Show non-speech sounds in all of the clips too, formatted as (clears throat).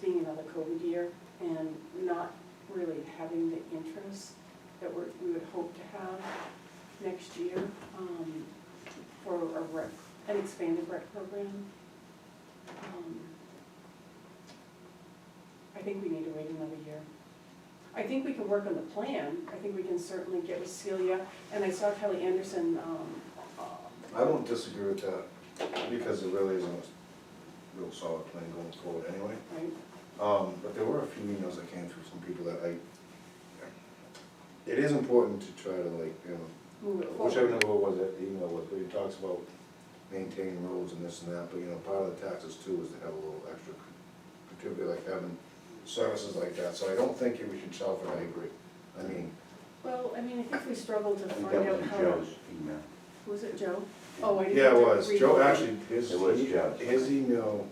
being another COVID year and not really having the interest that we're, we would hope to have next year, um, for a rec, an expanded rec program. Um, I think we need to wait another year. I think we can work on the plan, I think we can certainly get with Celia, and I saw Kelly Anderson, um, uh, I won't disagree with that, because there really isn't a real solid plan going forward anyway. right? Um, but there were a few emails that came through from people that I, it is important to try to like, you know, Move it forward. whichever number it was that the email was, but it talks about maintaining roads and this and that, but you know, part of the taxes too is to have a little extra contribute, like having services like that, so I don't think we should sell for, I agree. I mean, Well, I mean, I think we struggled to I think find that out was how. Joe's email. Was it Joe? Oh, I didn't. yeah, it have to was, read Joe, actually, his, e-, It was Joe's. his email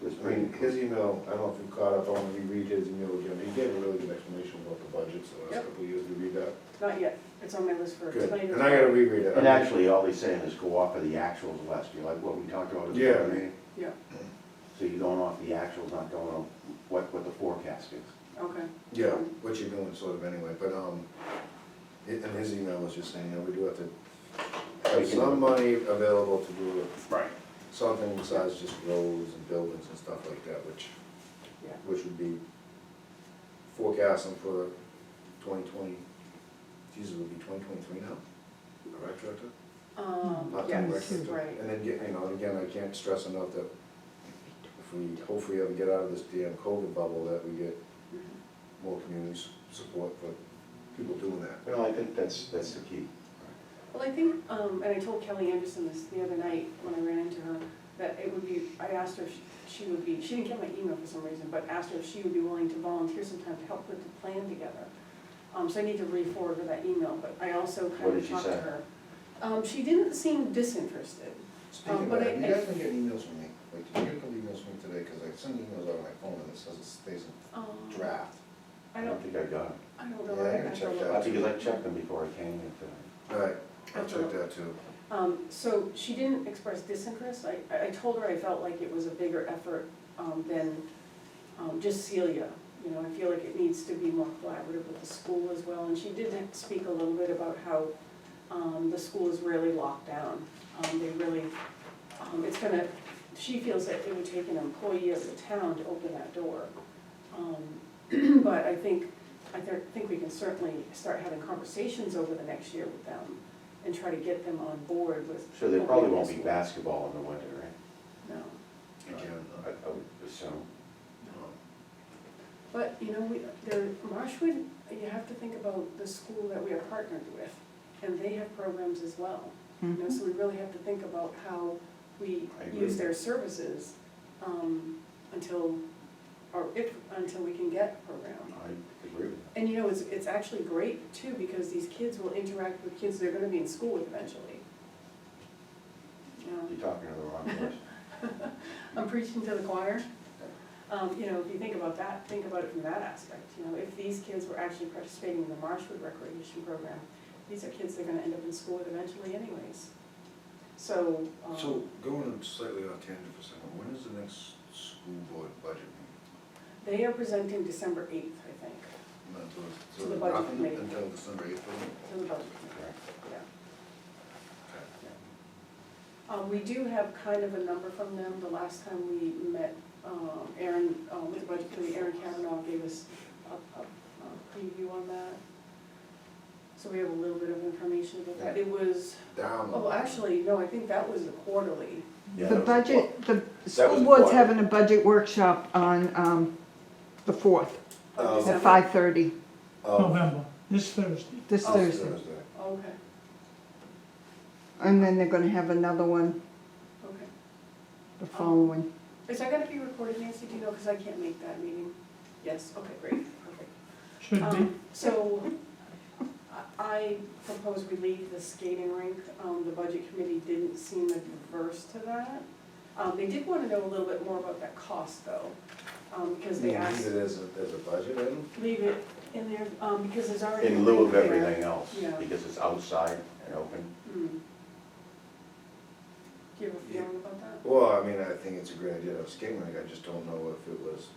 It was I mean, his pretty, email, I don't know if you caught up on, we read his email again, he gave a really good explanation about the budgets the Yep. last couple of years, we read that. Not yet, it's on my list for Good, tonight. and I gotta reread it. and actually, all he's saying is go off of the actuals last year, like what we talked about at the Yeah. other meeting. Yeah, So you're going off the actuals, not going on what, what the forecast is. okay. Yeah, what you're doing sort of anyway, but, um, it- and his email was just saying, you know, we do have to have some money available to do Right. something besides just roads and buildings and stuff like that, which, Yeah. which would be forecasting for twenty twenty, geez, it would be twenty twenty-three now, correct, Director? Um, Not that yes, record, but- right. And then, you know, and again, I can't stress enough that if we, hopefully ever get out of this damn COVID bubble, that we get Mm-hmm. more community s- support for people doing that. Well, I think that's, that's the key. Well, I think, um, and I told Kelly Anderson this the other night when I ran into her, that it would be, I asked her if she would be, she didn't get my email for some reason, but asked her if she would be willing to volunteer sometime to help put the plan together. Um, so I need to re-forward her that email, but I also What kind did of she talked to say? her. Um, she didn't seem disinterested. Speaking of Um, but that, I- have you I- guys been getting emails from me? Like, did you get a couple emails from me today? Because I send emails out on my phone and it says it stays in Um, draft. I don't, think I got I don't know. Yeah, I I gotta have to check look. that it. I think I checked them before I came in today. Alright, I'll check that too. Um, so she didn't express disinterest, I, I- I told her I felt like it was a bigger effort, um, than, um, just Celia. You know, I feel like it needs to be more collaborative with the school as well, and she did speak a little bit about how, um, the school is really locked down. Um, they really, um, it's gonna, she feels that it would take an employee of the town to open that door. Um, (clears throat) but I think, I thi- think we can certainly start having conversations over the next year with them and try to get them on board with. So there probably won't be opening this basketball in the winter, right? one. No, Again, I, I would assume. um, but you know, we, there, Marshwood, you have to think about the school that we are partnered with, and they have programs as well. You know, so we really have to think about how we I agree. use their services, um, until, or if, until we can get a program. I agree with that. And you know, it's, it's actually great too, because these kids will interact with kids they're gonna be in school with eventually. You know, You're talking to the wrong person. I'm preaching to the choir. Um, you know, if you think about that, think about it from that aspect, you know, if these kids were actually participating in the Marshwood Recreation Program, these are kids they're gonna end up in school with eventually anyways. So, um. So going slightly off tangent for a second, when is the next school board budget meeting? They are presenting December eighth, I think, Not until, To the so budget nothing committee. until December eighth, to the budget committee, Correct. yeah. Okay. Um, we do have kind of a number from them, the last time we met, um, Aaron, um, with the budget committee, Aaron Kavanaugh gave us a, a, a preview on that. So we have a little bit of information about that, it was, Down. the oh, line. actually, no, I think that was the quarterly, Yeah, The that was a budget, the was school a board's plot. having a budget workshop on, um, the fourth, of Um, Oh. December. at five thirty, Oh, November, this Thursday. this Oh. Thursday. Okay, And then they're gonna have another one okay, the following. is that gonna be recorded, Nancy, do you know, cause I can't make that meeting? Yes, okay, great, perfect. Should be, Um, So, I- I propose we leave the skating rink, um, the budget committee didn't seem adverse to that. Um, they did wanna know a little bit more about that cost though, um, because they Yeah, asked, either as a, as a budget item? leave it in there, um, because there's already. a In lieu of rink there. everything else, Yeah. because it's outside and open. Hmm. Do you have a feeling about that? Well, I mean, I think it's a great idea to have a skating rink, I just don't know if it was